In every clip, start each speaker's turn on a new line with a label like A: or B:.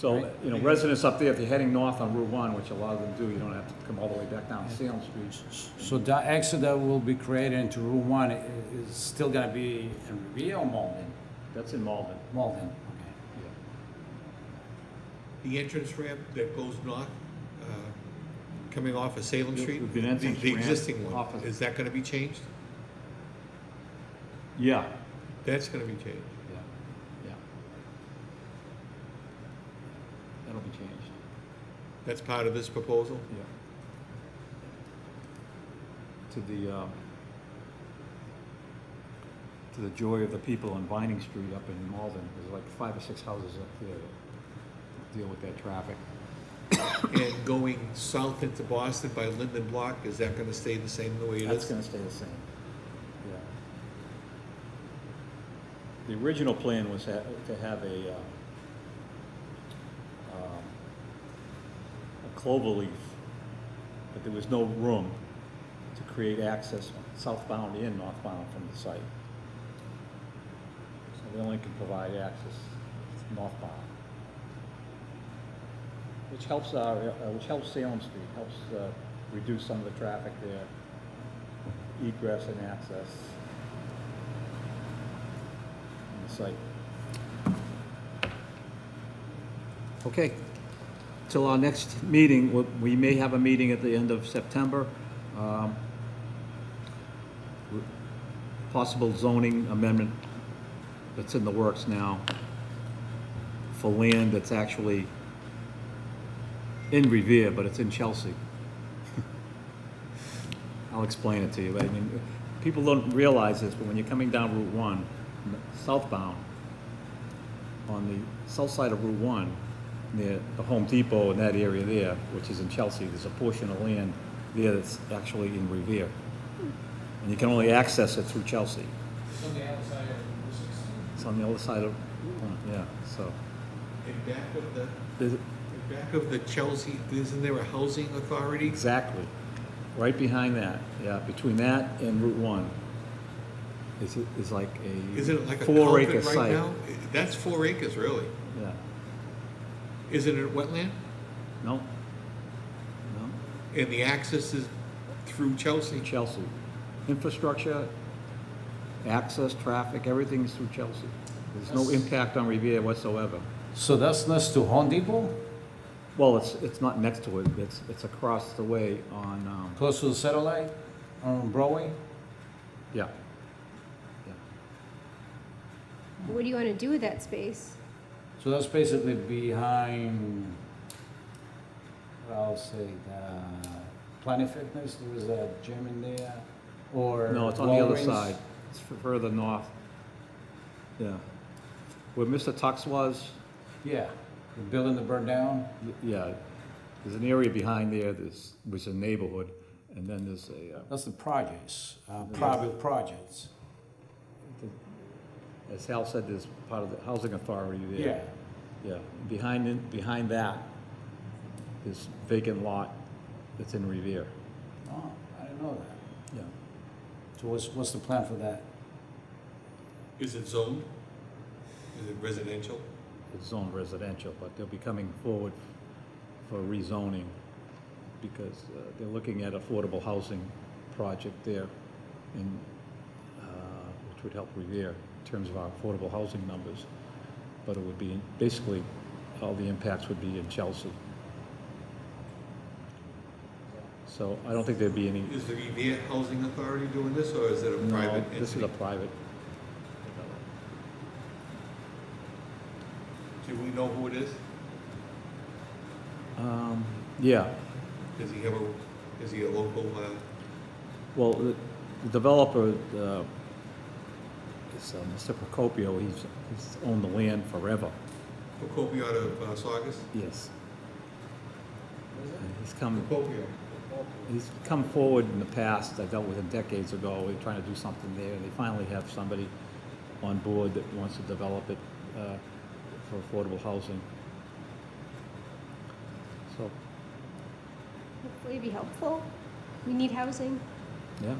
A: So, you know, residents up there, if you're heading north on Route 1, which a lot of them do, you don't have to come all the way back down Salem Street.
B: So the exit that will be created into Route One i- is still gonna be in Revere or Malden?
A: That's in Malden.
B: Malden, okay.
C: The entrance ramp that goes north, uh, coming off of Salem
A: There
C: Street?
A: would be an
C: the-
A: entrance
C: The
A: ramp
C: existing one,
A: off of-
C: is that gonna be changed?
A: Yeah,
C: That's gonna be changed.
A: yeah, yeah. That'll be changed,
C: That's part of this proposal?
A: yeah. To the, um, to the joy of the people on Vining Street up in Malden, there's like five or six houses up there that deal with that traffic.
C: And going south into Boston by Linden Block, is that gonna stay the same the way it
A: That's
C: is?
A: gonna stay the same. Yeah. The original plan was ha- to have a, uh, um, a clover leaf, but there was no room to create access southbound and northbound from the site. So they only can provide access northbound. Which helps our, uh, which helps Salem Street, helps, uh, reduce some of the traffic there, egress and access. on the site. Okay, till our next meeting, w- we may have a meeting at the end of September. um, w- Possible zoning amendment that's in the works now for land that's actually in Revere, but it's in Chelsea. I'll explain it to you, but I mean, people don't realize this, but when you're coming down Route One, n- southbound, on the south side of Route One, near the Home Depot in that area there, which is in Chelsea, there's a portion of land there that's actually in Revere. And you can only access it through Chelsea.
B: So the other side of Route Sixteen?
A: It's on the other side of, yeah, so,
C: In back of the,
A: there's-
C: in back of the Chelsea, isn't there a housing authority?
A: Exactly. Right behind that, yeah, between that and Route One is, is like a.
C: Isn't it like a
A: four acre
C: culvert right
A: site.
C: now? That's four acres, really.
A: Yeah,
C: Isn't it wetland?
A: no, no,
C: And the access is through Chelsea?
A: Chelsea. Infrastructure, access, traffic, everything is through Chelsea. There's no
B: That's-
A: impact on Revere whatsoever.
B: So that's next to Home Depot,
A: Well, it's, it's not next to it, it's, it's across the way on, um,
B: close to the satellite on Broadway?
A: yeah. Yeah.
D: What do you want to do with that space?
B: So that's basically behind, what I'll say, the Planet Fitness, there is a gym in there, or.
A: No, it's on the other
B: Walgreens.
A: side. It's f- further north. Yeah. Where Mr. Tux was,
B: Yeah, the building that burned down.
A: y- yeah, there's an area behind there that's, was a neighborhood, and then there's a, uh,
B: That's the projects, uh, private projects.
A: uh, as Hal said, there's part of the housing authority there. Yeah. Behind, it- behind that, this vacant lot that's in Revere.
B: Oh, I didn't know that.
A: Yeah.
B: So what's, what's the plan for that?
C: Is it zoned? Is it residential?
A: It's zoned residential, but they'll be coming forward for rezoning because uh, they're looking at affordable housing project there in, uh, which would help Revere in terms of our affordable housing numbers. But it would be, in- basically, all the impacts would be in Chelsea. So I don't think there'd be any,
C: Is the Revere Housing Authority doing this, or is it a private
A: no,
C: entity?
A: this is a private.
C: Do we know who it is?
A: Um, Yeah,
C: Does he have a, is he a local, uh,
A: Well, the the developer, uh, is uh, Mr. Procopio, he's, he's owned the land forever.
C: Procopio out of uh, Saugus?
A: Yes. And He's come,
C: Procopio.
A: he's come forward in the past, I dealt with him decades ago, we were trying to do something there, and they finally have somebody on board that wants to develop it uh, for affordable housing. So,
D: Hopefully it'd be helpful. We need housing.
A: yeah.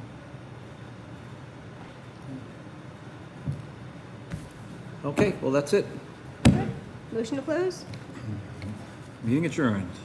A: Okay, well, that's it.
D: Good. Motion to close?
A: Meeting adjourned.